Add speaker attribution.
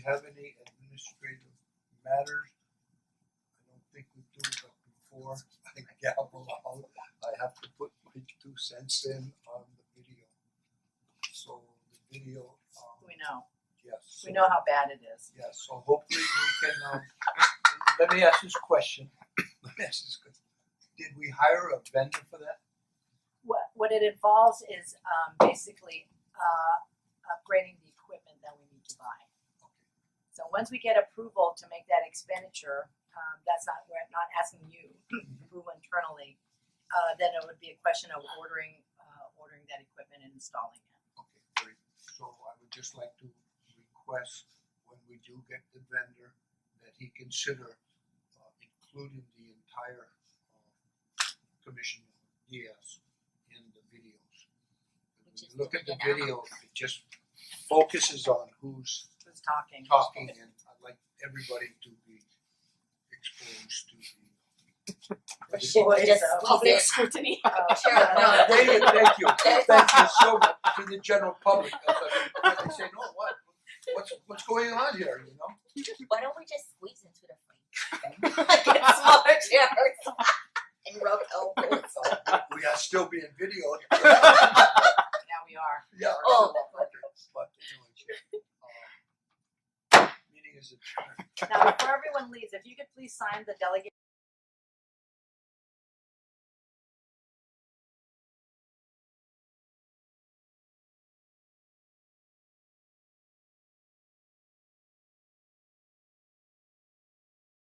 Speaker 1: we have any administrative matters? I don't think we do, but before I gavel out, I have to put my two cents in on the video. So the video, um,
Speaker 2: We know,
Speaker 1: yes.
Speaker 2: we know how bad it is.
Speaker 1: Yeah, so hopefully we can, um, let me ask this question, let me ask this question. Did we hire a vendor for that?
Speaker 2: What what it involves is um basically uh upgrading the equipment that we need to buy. So once we get approval to make that expenditure, um that's not, we're not asking you to approve internally. Uh then it would be a question of ordering uh ordering that equipment and installing it.
Speaker 1: Okay, great. So I would just like to request when we do get the vendor that he consider uh including the entire uh commission yes in the videos. When
Speaker 3: Which
Speaker 1: you
Speaker 3: is
Speaker 1: look at the
Speaker 3: taken out.
Speaker 1: video, it just focuses on who's
Speaker 2: Who's talking?
Speaker 1: talking and I'd like everybody to be exposed to the
Speaker 2: sure.
Speaker 3: Or just
Speaker 2: so.
Speaker 3: public
Speaker 4: Public
Speaker 3: s-
Speaker 4: scrutiny.
Speaker 2: Uh,
Speaker 3: Sure.
Speaker 1: No, they did, thank you,
Speaker 3: That's-
Speaker 1: thank you so much to the general public, I was like, I say, no, what, what's what's going on here, you know?
Speaker 3: Why don't we just squeeze into the frame? like in smaller chairs and rub elbows.
Speaker 1: We are still being videoed.
Speaker 2: Now we are.
Speaker 1: Yeah.
Speaker 3: Oh.
Speaker 1: okay, But anyways, um, meeting is adjourned.
Speaker 2: Now, before everyone leaves, if you could please sign the delegate